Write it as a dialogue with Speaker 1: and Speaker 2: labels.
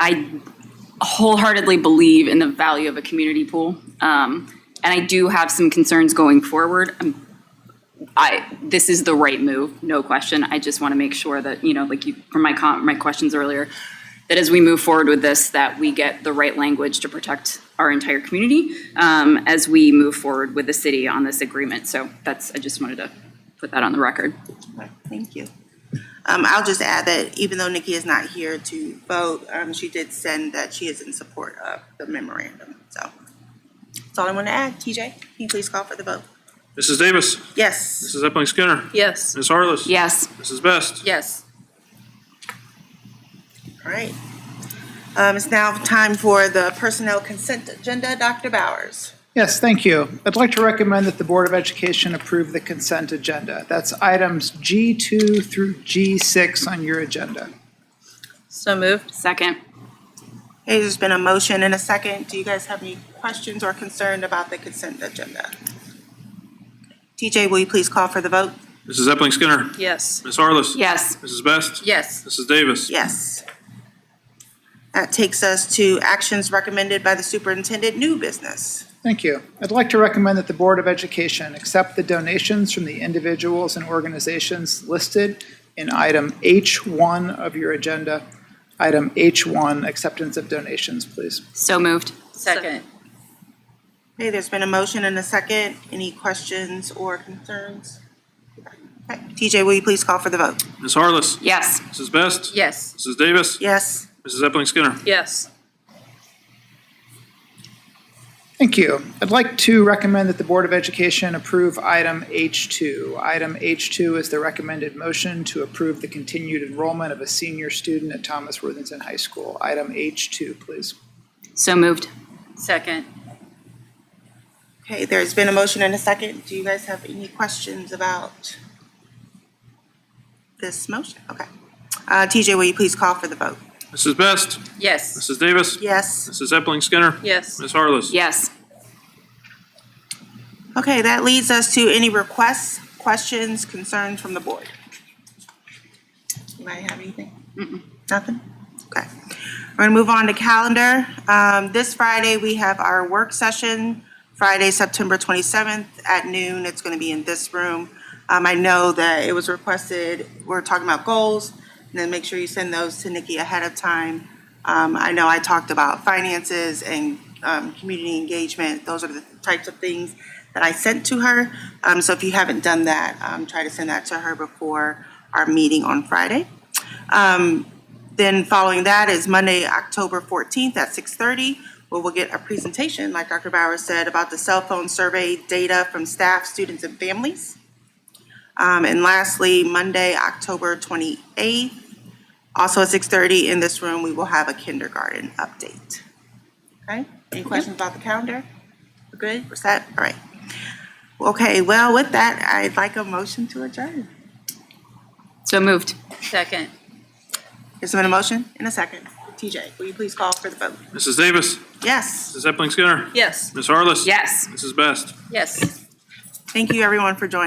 Speaker 1: I wholeheartedly believe in the value of a community pool. Um, and I do have some concerns going forward. Um, I, this is the right move, no question. I just want to make sure that, you know, like you, from my com, my questions earlier, that as we move forward with this, that we get the right language to protect our entire community, um, as we move forward with the city on this agreement. So that's, I just wanted to put that on the record.
Speaker 2: Thank you. Um, I'll just add that even though Nikki is not here to vote, um, she did send that she is in support of the memorandum, so. That's all I want to add. TJ, can you please call for the vote?
Speaker 3: Mrs. Davis.
Speaker 2: Yes.
Speaker 3: Mrs. Epling Skinner.
Speaker 4: Yes.
Speaker 3: Ms. Harless.
Speaker 1: Yes,
Speaker 3: Mrs. Best.
Speaker 4: Yes.
Speaker 2: All right. Um, it's now time for the personnel consent agenda. Dr. Bowers.
Speaker 5: Yes, thank you. I'd like to recommend that the Board of Education approve the consent agenda. That's items G2 through G6 on your agenda.
Speaker 4: So moved.
Speaker 1: second.
Speaker 2: Hey, there's been a motion and a second. Do you guys have any questions or concern about the consent agenda? TJ, will you please call for the vote?
Speaker 3: Mrs. Epling Skinner.
Speaker 4: Yes.
Speaker 3: Ms. Harless.
Speaker 1: Yes,
Speaker 3: Mrs. Best.
Speaker 4: Yes.
Speaker 3: Mrs. Davis.
Speaker 2: Yes. That takes us to actions recommended by the superintendent, new business.
Speaker 5: Thank you. I'd like to recommend that the Board of Education accept the donations from the individuals and organizations listed in item H1 of your agenda. Item H1, acceptance of donations, please.
Speaker 1: so moved.
Speaker 4: Second.
Speaker 2: Okay, there's been a motion and a second. Any questions or concerns? Okay, TJ, will you please call for the vote?
Speaker 3: Ms. Harless.
Speaker 1: Yes,
Speaker 3: Mrs. Best.
Speaker 4: Yes.
Speaker 3: Mrs. Davis.
Speaker 2: Yes.
Speaker 3: Mrs. Epling Skinner.
Speaker 4: Yes.
Speaker 5: Thank you. I'd like to recommend that the Board of Education approve item H2. Item H2 is the recommended motion to approve the continued enrollment of a senior student at Thomas Worthington High School. Item H2, please.
Speaker 1: so moved.
Speaker 4: Second.
Speaker 2: Okay, there's been a motion and a second. Do you guys have any questions about this motion? Okay. Uh, TJ, will you please call for the vote?
Speaker 3: Mrs. Best.
Speaker 4: Yes.
Speaker 3: Mrs. Davis.
Speaker 2: Yes.
Speaker 3: Mrs. Epling Skinner.
Speaker 4: Yes.
Speaker 3: Ms. Harless.
Speaker 1: Yes,
Speaker 2: Okay, that leads us to any requests, questions, concerns from the board. Anybody have anything? Nothing? Okay. We're gonna move on to calendar. Um, this Friday, we have our work session, Friday, September twenty-seventh at noon. It's gonna be in this room. Um, I know that it was requested, we're talking about goals, and then make sure you send those to Nikki ahead of time. Um, I know I talked about finances and, um, community engagement. Those are the types of things that I sent to her. Um, so if you haven't done that, um, try to send that to her before our meeting on Friday. Then following that is Monday, October 14th at 6:30, where we'll get a presentation, like Dr. Bauer said, about the cell phone survey data from staff, students, and families. Um, And lastly, Monday, October 28th, also at 6:30 in this room, we will have a kindergarten update. Okay, any questions about the calendar? We're good, we're set, all right. Okay, well, with that, I'd like a motion to adjourn.
Speaker 1: so moved.
Speaker 4: Second.
Speaker 2: Is there a motion and a second? TJ, will you please call for the vote?
Speaker 3: Mrs. Davis.
Speaker 2: Yes.
Speaker 3: Mrs. Epling Skinner.
Speaker 4: Yes.
Speaker 3: Ms. Harless.
Speaker 1: Yes.
Speaker 3: Mrs. Best.
Speaker 4: Yes.
Speaker 2: Thank you, everyone, for joining.